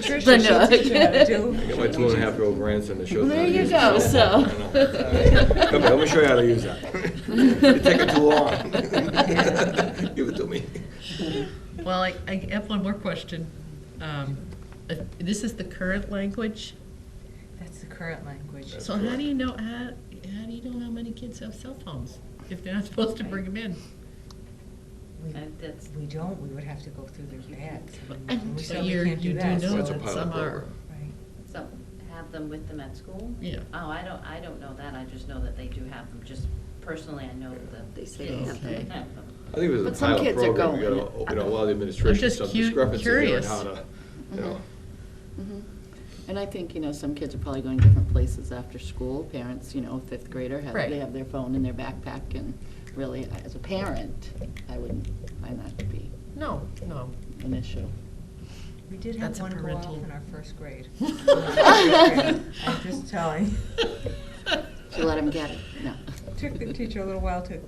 Patricia shows you how to do. I got my two and a half year old grandson that shows me. how There to you use go, it. so. I know. Come here, let me show you how to use that. You're taking too long. Give it to me. Well, I, I have one more question. Um, uh, This is the current language, That's the current language. so how do you know, how, how do you know how many kids have cell phones if they're not supposed to bring them in? We- That- that's- We don't, we would have to go through their beds. and we But certainly you're, can't you do that, know so- That's a that pilot some are. program. Right. So, have them with them at school? Yeah. Oh, I don't, I don't know that, I just know that they do have them, just personally, I know that They the say kids have them. have them. I think it was a But some pilot kids are program, we going. gotta, you know, allow the administration just some cu- discrepancy here in curious. how to, you know. Mhm. And I think, you know, some kids are probably going different places after school. Parents, you know, fifth grader, have, Right. they have their phone in their backpack and really, as a parent, I wouldn't find that to be No, no. an issue. We did That's have a one go off parental- in our first grade. I'm just telling. So let them get it, no. Took the teacher a little while to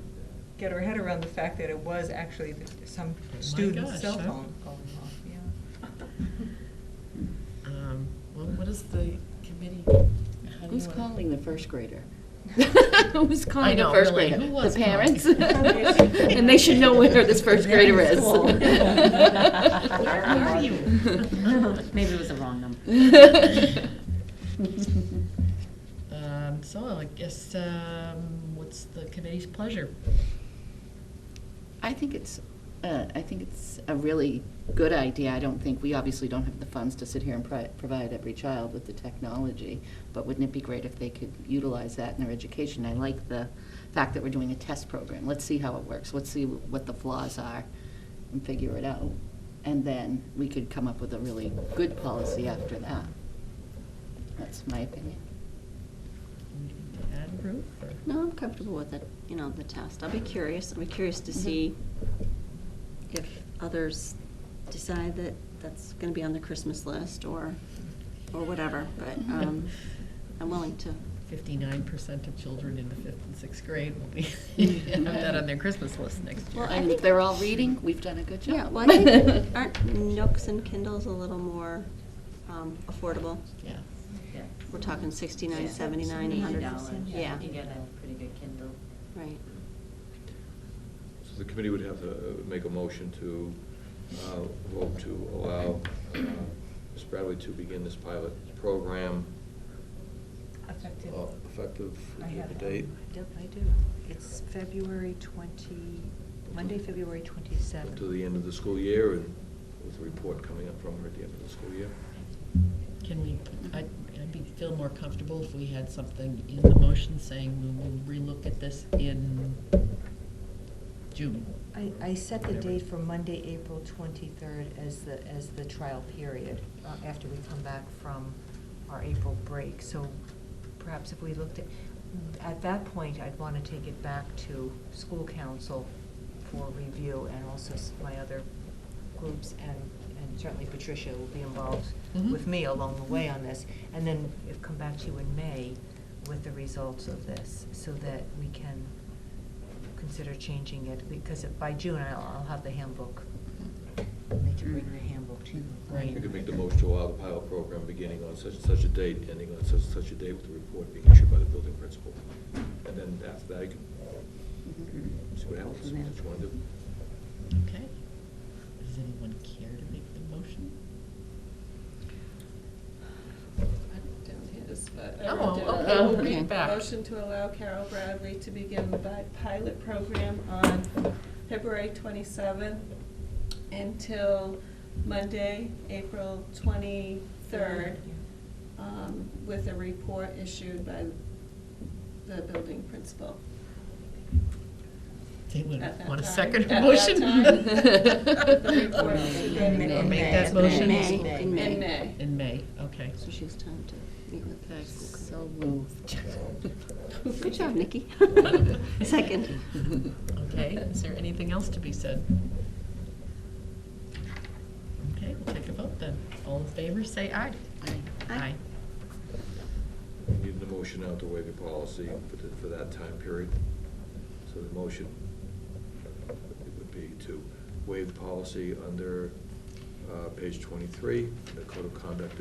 get her head around the fact that it was actually the- some student's Oh gosh, cell huh? phone going off, yeah. Um, Well, what is the committee? how do you Who's wanna- calling the first grader? Who's calling the know, first really, grader? who was The calling? parents? And they should know where this first They're in grader is. school. Where are you? Maybe it was the wrong number. Um, So I guess, um, what's the committee's pleasure? I think it's, uh, I think it's a really good idea. I don't think, we obviously don't have the funds to sit here and pri- provide every child with the technology, but wouldn't it be great if they could utilize that in their education? I like the fact that we're doing a test program. Let's see how it works. Let's see what the flaws are and figure it out. And then we could come up with a really good policy after that. That's my opinion. Anything to Add, Ruth, or? No, I'm comfortable with it, you know, the test. I'll be curious, I'll be curious to see if others decide that that's gonna be on the Christmas list or, or whatever, but, Mm-hmm. um, I'm willing to. Fifty-nine percent of children in the fifth and sixth grade will be, have that on their Christmas list next year. Well, I And if think- they're all reading, we've done a good job. Yeah, well, I think, aren't Nooks and Kindles a little more, um, affordable? Yeah. Yeah. We're talking sixty-nine, Yeah. seventy-nine, a hundred. $80. Yeah, You can get a pretty good Kindle. right. So the committee would have to make a motion to uh, vote to allow uh, Ms. Bradley to begin this pilot program Effective. uh, effective I have the it. date. Yep, I do. It's February 20, Monday, February Up 27th. to the end of the school year and with a report coming up from her at the end of the school year. Can we, Mm-hmm. I, I'd be, feel more comfortable if we had something in the motion saying we will relook at this in June. I, I set the Whatever. date for Monday, April 23rd as the, as the trial period, uh, after we come back from our April break. So perhaps if we looked at, at that point, I'd want to take it back to school council for review and also s- my other groups and, and certainly Patricia will be involved Mhm. with me along the way on this. And then if- come back to you in May with the results of this so that we can consider changing it, because it- by June, I'll, I'll have the handbook. They can bring the handbook to you. Right. You could make the motion to allow the pilot program beginning on such and such a date, ending on such and such a date with the report being issued by the building principal. And then after that, you can see what happens, see what you want to do. Okay. Does anyone care to make the motion? I don't have his, but. I Oh, wrote down. okay, we'll Okay. read back. Motion to allow Carol Bradley to begin the bi- pilot program on February twenty-seventh until Monday, April twenty-third, um, with a report issued by the building principal. They would At that want a time. second At that motion? time. The report is In May. Or ready make In that May. motion? In May, in May. In May. In May, okay. So she has time to meet with the school committee. So moved. Good job, Nikki. Second. Okay, is there anything else to be said? Okay, we'll take a vote then. All in favor, say aye. Aye. You Need the motion out to waive your policy for the- for that time period. So the motion would be to waive the policy under uh, uh, page 23, the Code of Conduct